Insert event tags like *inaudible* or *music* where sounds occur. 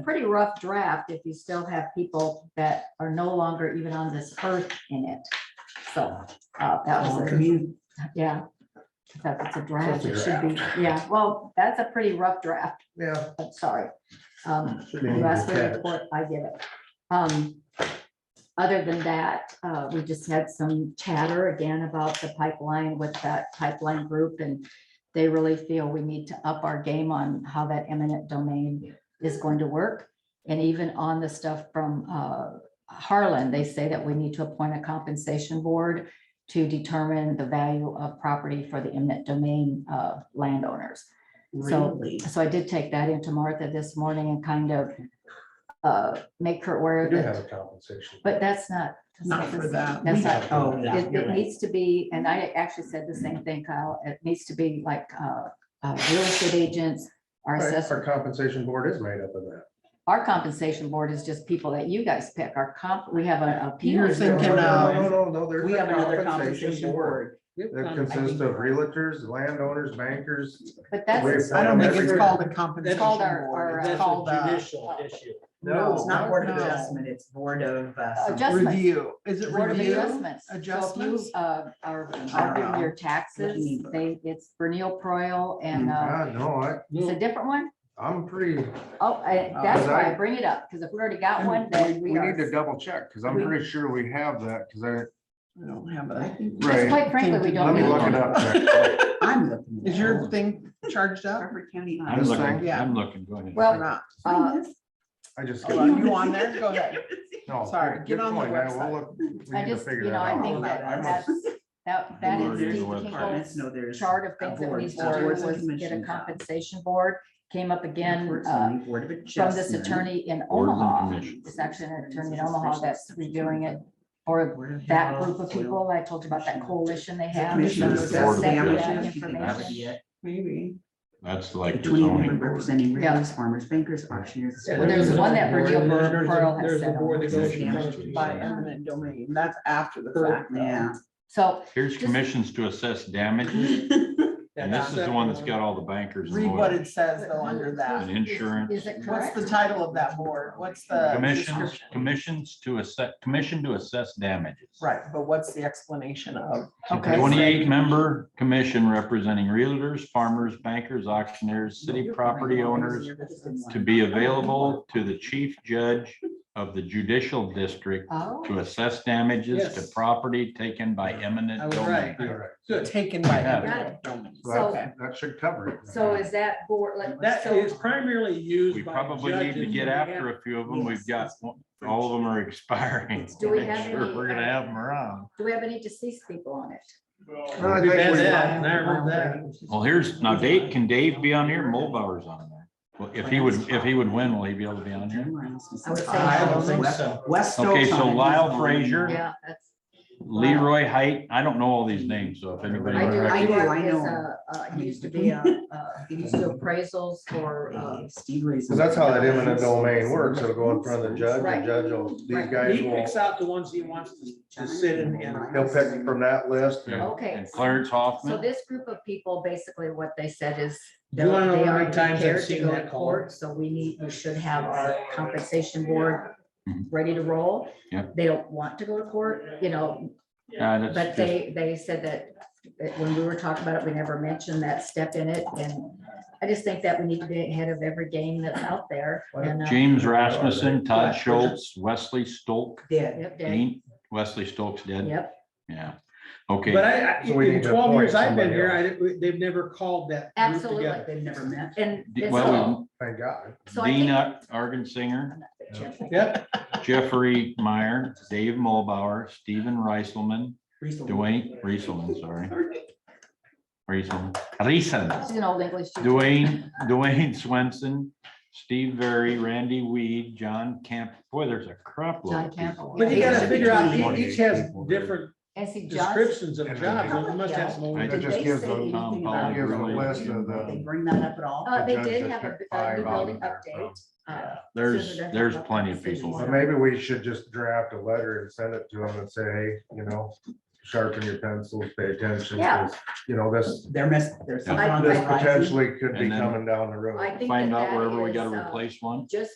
pretty rough draft if you still have people that are no longer even on this earth in it. So, uh, that was, a- Commu- yeah. Because it's a draft, it It's a should be, yeah, well, that's a pretty rough draft, Yeah. I'm sorry. Um, should be you asked for attached. the report, I give it. Um, Other than that, uh, we just had some chatter again about the pipeline with that pipeline group and they really feel we need to up our game on how that eminent domain is going to work. And even on the stuff from uh, Harlan, they say that we need to appoint a compensation board to determine the value of property for the eminent domain uh, landowners. So, Really? so I did take that into Martha this morning and kind of uh, make her aware We of do have it, a compensation. but that's not. that's Not for this- that. That's not, Oh, yeah. it, you're it right. needs to be, and I actually said the same thing, Kyle, it needs to be like, uh, uh, real estate agents, our Right, assessor, Our compensation board is made up of that. our compensation board is just people that you guys pick, our comp, we have a. a You're peers thinking board. of- No, no, no, no, there's We a have another compensation board. Um, That consists of realtors, landowners, bankers. But We're- that's, I don't think it's Every- called a compensation called our- our, board. uh, It's That's called a a- judicial issue. No, it's not board of No. adjustment, it's board of. uh, some- Adjustments. Review, is it Board of review? Adjustments. So if you, Adjustments? Uh, are arguing your taxes, they, it's Bernil Proil and, uh, God, no, I, it's a No, different one? I'm pretty, Oh, I- that's Uh, why I bring it up, because if we already got one, then we we are. need to double check, because I'm pretty sure we have that, because I, I don't have a. Because right, Quite frankly, we let don't. me need look one. it up. next. I'm looking. at Is your thing charged *laughs* up Harper County. I'm Uh, This looking, thing? I'm looking, go ahead. or Well, not? *laughs* uh, I just. Oh, are you on there? Go ahead. No, Sorry, good- get good on the point. I will website. look- we need I to just, figure you that know, I out. think that, I must- that's, that, *laughs* that We're is already Steve in the website. Kinkel's Departments, no, there's. chart of a things that board, needs to boards do and was get a commissions. compensation board, came up again, Report uh, zoning, Board of from this Adjustment, attorney in Board of Omaha, Information. this actually an attorney in Omaha that's reviewing it for Board of that Health, group of Soil people. I told you about that coalition they have. Commissioners, Just Board of that Adjustment. information. Information. Maybe. That's The like the twenty zoning women board. representing Yeah. realtors, farmers, bankers, auctioneers. Yeah, Well, there's There's one a that board, Virgil there's- there's a- Pearl has there's a set board that up. goes It's damaged. By to- eminent domain, that's after the Correct. fact. though. Yeah. So, Here's Just- commissions to assess damages, *laughs* and this is the one that's got all the bankers and Read what lawyers it says though under and that. is insurance. it What's correct? the title of that board? What's the? Commissions, description? commissions to assess, commission to assess damages. Right, but what's the explanation of? Okay. Twenty-eight member commission representing realtors, farmers, bankers, auctioneers, city property owners to be available to the chief judge of the judicial district Oh, to assess damages to Yes. property taken by I eminent was domain. right. All right. Good. Taken by Yeah. eminent domain. So that- Okay. That should cover it. so is that board, like, That so, is primarily used. We by probably need to judges get and after a few of them. We've got, all of them are expiring. Do we Make have *laughs* sure any, We're gonna uh, have them around. do we have any deceased people on it? Well, I We've think had we- that, and I heard that. Well, here's, now Dave, can Dave be on here? Mulbauer's on there. Well, if he would, if he would win, will he be able to be on here? I don't think West- so. West. Okay, so Stoughton is Lyle on. Frazier. Yeah, that's, Leroy Height, I don't know all these names, so if anybody. I do, I I do, do, I I know. uh, He used to be a, uh, he used to appraisals for, uh, Uh, Steve Reason. Because that's how that eminent domain works. It'll go in front of the judge, Right. the judge will, these Right. guys He picks will, out the ones he wants to- to sit in and. he'll pick from that list. and- okay. And Clarence So Hoffman, this group of people, basically what they said is. You wanna know they're- they how many are times I've prepared to seen go that to call? court, So we need, we should have our compensation board Mm-hmm. Mhm. ready to roll. Yeah. They don't want to go to court, you know, Uh, that's but just- they, they said that, that when we were talking about it, we never mentioned that step in it. And I just think that we need to be ahead of every game that's out there. and, uh, James Rasmussen, Todd Schultz, Wesley Stolk, Did. Yep, Dave, Dean, Wesley Stolk's dead, yep. yeah. Okay, But I, I- So we need in to twelve years appoint I've been here, I, somebody didn't- they've never called that group Absolutely. together. They've never met. And. D- and well, Thank God. so- so I think- Dina Argensinger, Yep, Jeffrey Meyer, Dave Mulbauer, Stephen Reiselman, Dwayne, Reiselman, sorry. *laughs* Reiselman, Reiselman. She's an old English teacher. Dwayne, Dwayne Swenson, Steve Very, Randy Weed, John Camp, boy, there's a crop. load John of people. Campbell. but you gotta figure out, Yeah. each each has different And see, Johnson, descriptions of jobs, and they must have some. I It Did just they gives say them- anything Tom about- Paul. Gives them a Really. list of They the, bring that up at all? Uh, they judge did that have a picked a new five out building of there from. update. uh, There's, Susan, I there's think plenty of that's people. but maybe we should just draft a letter and send it to them and say, hey, you know, sharpen your pencils, pay attention. 'cause, You know, this, There must, there's. Yeah. something on the this horizon. potentially could be And then- coming down the road. Um, I think Find that out that wherever we is, gotta uh, replace one. Just